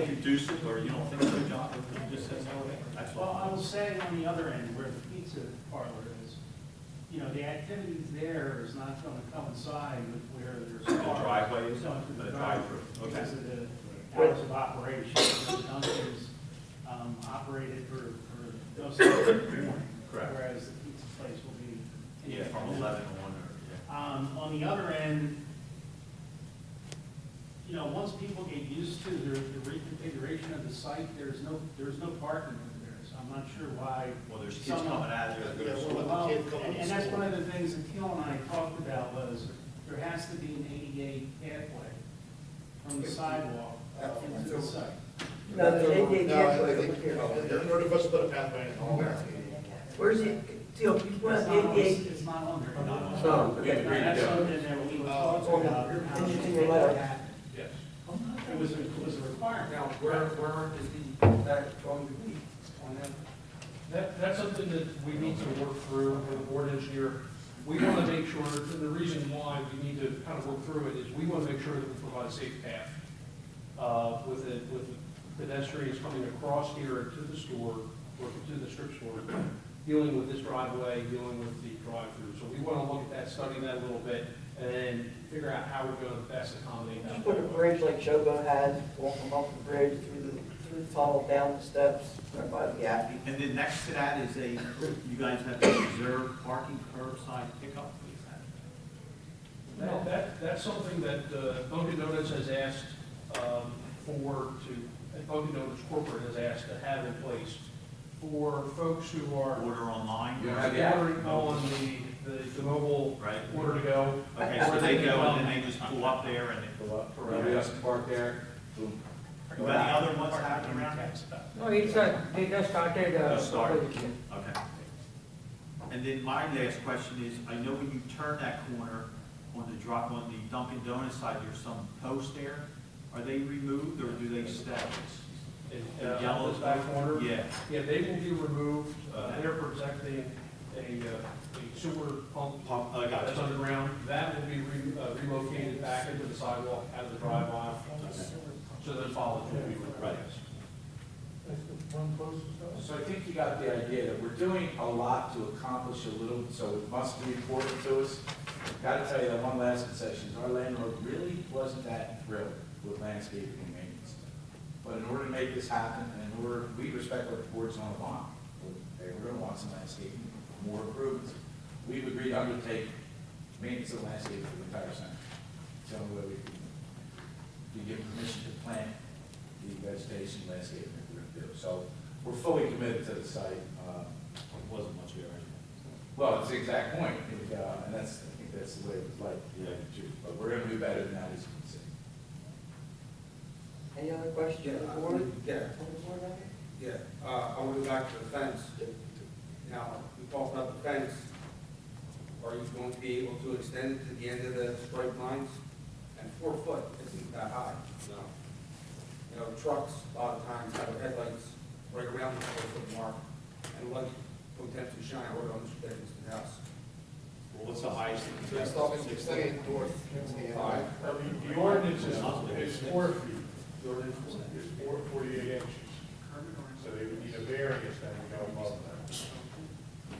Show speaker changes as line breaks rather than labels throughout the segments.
induce it, or you don't think it's a job, if it just says elevate, that's
Well,
all.
I will say on the other end, where the pizza parlor is, you know, the activities there is not going to coincide with where there's.
The
cars
driveway is-
going through
the drive-through, Oh, okay.
Because of the hours of operation, the Dunkin's um, operated for, for those hours in the morning.
Correct.
Whereas the pizza place will be.
Yeah, from eleven to one, or, yeah.
Um, on the other end, you know, once people get used to the, the reconfiguration of the site, there's no, there's no parking over there, so I'm not sure why.
Well, there's kids
Some-
coming out of there,
Yeah,
there's,
well,
well,
Well,
the kid coming
and,
to
and that's
school.
one of the things that Teal and I talked about was, there has to be an ADA pathway from the sidewalk
Oh,
That's-
into the site.
No, the ADA pathway over here.
None of us put a pathway in all that.
Where's it, Teal, you
It's
want
not on,
ADA?
it's not on there.
Not on.
No,
We
okay.
agree to
That's
go.
something that we were
Uh,
talking about.
Did
how
you
to
do
get
your letter?
that.
yes.
It was, a- it was a requirement.
Now, where, where is the, that going to be on that?
That, that's something that we need to work through with the board engineer. We want to make sure, and the reason why we need to kind of work through it is we want to make sure that we provide a safe path uh, with the, with the pedestrians coming across here to the store, or to the strip store, dealing with this driveway, dealing with the drive-through. So we want to look at that, study that a little bit, and then figure out how we're going to best accommodate
Just
that.
put a bridge like Shogo has, walk them up the bridge through the, through the tunnel, down the steps, everybody'd be happy.
And then next to that is a, you guys have to reserve parking curbside pickup, please.
That, that, that's something that uh, Dunkin' Donuts has asked um, for to, and Dunkin' Donuts corporate has asked to have in place for folks who are
Order online,
Yeah.
ordering on the, the, the mobile
right?
order to go.
Okay, so they go and then they just pull up there and they pull up.
Everybody else park there.
You got any other ones happening around here?
No, it's, uh, they just started, uh.
Just started.
proposition.
Okay. And then my last question is, I know when you turn that corner on the drop, on the Dunkin' Donuts side, there's some posts there. Are they removed or do they stay?
And,
The
uh,
yellow-
this back corner.
Yeah,
Yeah, they will be removed, uh, they're protecting a, uh, a sewer pump. uh,
Pump, Oh, I got
That's
you.
underground, that will be re- uh, relocated back into the sidewalk out of the drive aisle. So those bollards will be removed.
Right.
So I think you got the idea that we're doing a lot to accomplish a little, so it must be important to us. Got to tell you that one last concession, is our landlord really wasn't that thrilled with landscaping and maintenance. But in order to make this happen, and in order, we respect what the board's on the bond, they're going to want some landscaping, more improvements. We've agreed to undertake maintenance of landscaping for the entire center. So uh, we can give permission to plant the vegetation landscaping that we're going to do. So we're fully committed to the site. uh,
wasn't much here.
Well, it's the exact point, and, uh, and that's, I think that's the way it was like, yeah, but we're going to do better than that, as you can see.
Any other questions? from the board?
Yeah,
From the board, Larry?
yeah, uh, I would back to the fence. Now, we talked about the fence. Are you going to be able to extend it to the end of the straight lines? And four foot isn't that high, no. You know, trucks a lot of times have headlights right around the four foot mark, and light potentially shine right on the edge of the house.
Well, What's the highest? that you
You're
can
stopping, you're staying north. Yeah.
Five.
The ordinance is, is four feet,
The ordinance is-
is four, forty-eight inches. So they would need a variance then to go above that.
get?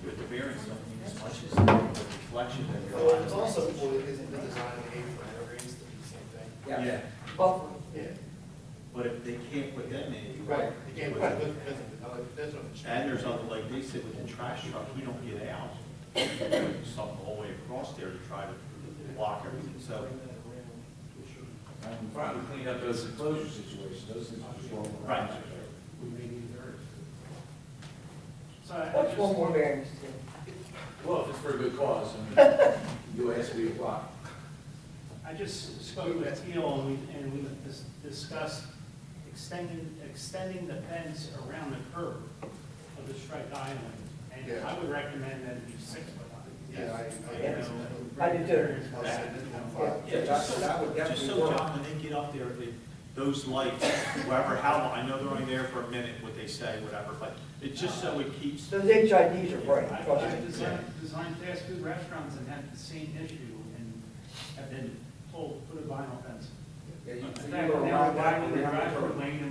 With the variance, I mean, as much as the reflection that you're.
Well, it's also, well, isn't the design of the apron, it rings to be the same thing.
Yeah,
Buffer.
Yeah.
But if they can't put them in. you-
Right, you can't put it with- with- there's no change.
And there's other, like they said, with the trash truck, you don't get out. Some whole way across there to try to block everything, so.
And we finally cleaned up those enclosure situations, those things were just wrong.
Right.
We may need variance.
So I- I
What's
just-
one more variance, Teal?
Well, if it's for a good cause, I mean, you ask, we apply.
I just spoke with Teal and we, and we dis- discussed extending, extending the fence around the curve of the striped island. And
Yeah.
I would recommend that it be six foot high.
Yeah, I, I.
Yes.
I-
I do too.
I'll send it down
Yeah.
five.
Yeah, that, that
Just
would definitely
so,
work.
John, when they get up there, they, those lights, wherever, how, long- I know they're only there for a minute, what they say, whatever, but it's just so it keeps.
Those HIDs are
I-
bright, trust
I've
me.
designed, designed fast food restaurants and had the same issue and have been told, put a vinyl fence.
yeah, you-
In
you
fact,
go
now we're
around that,
widening the
around the curve.
driveway lane and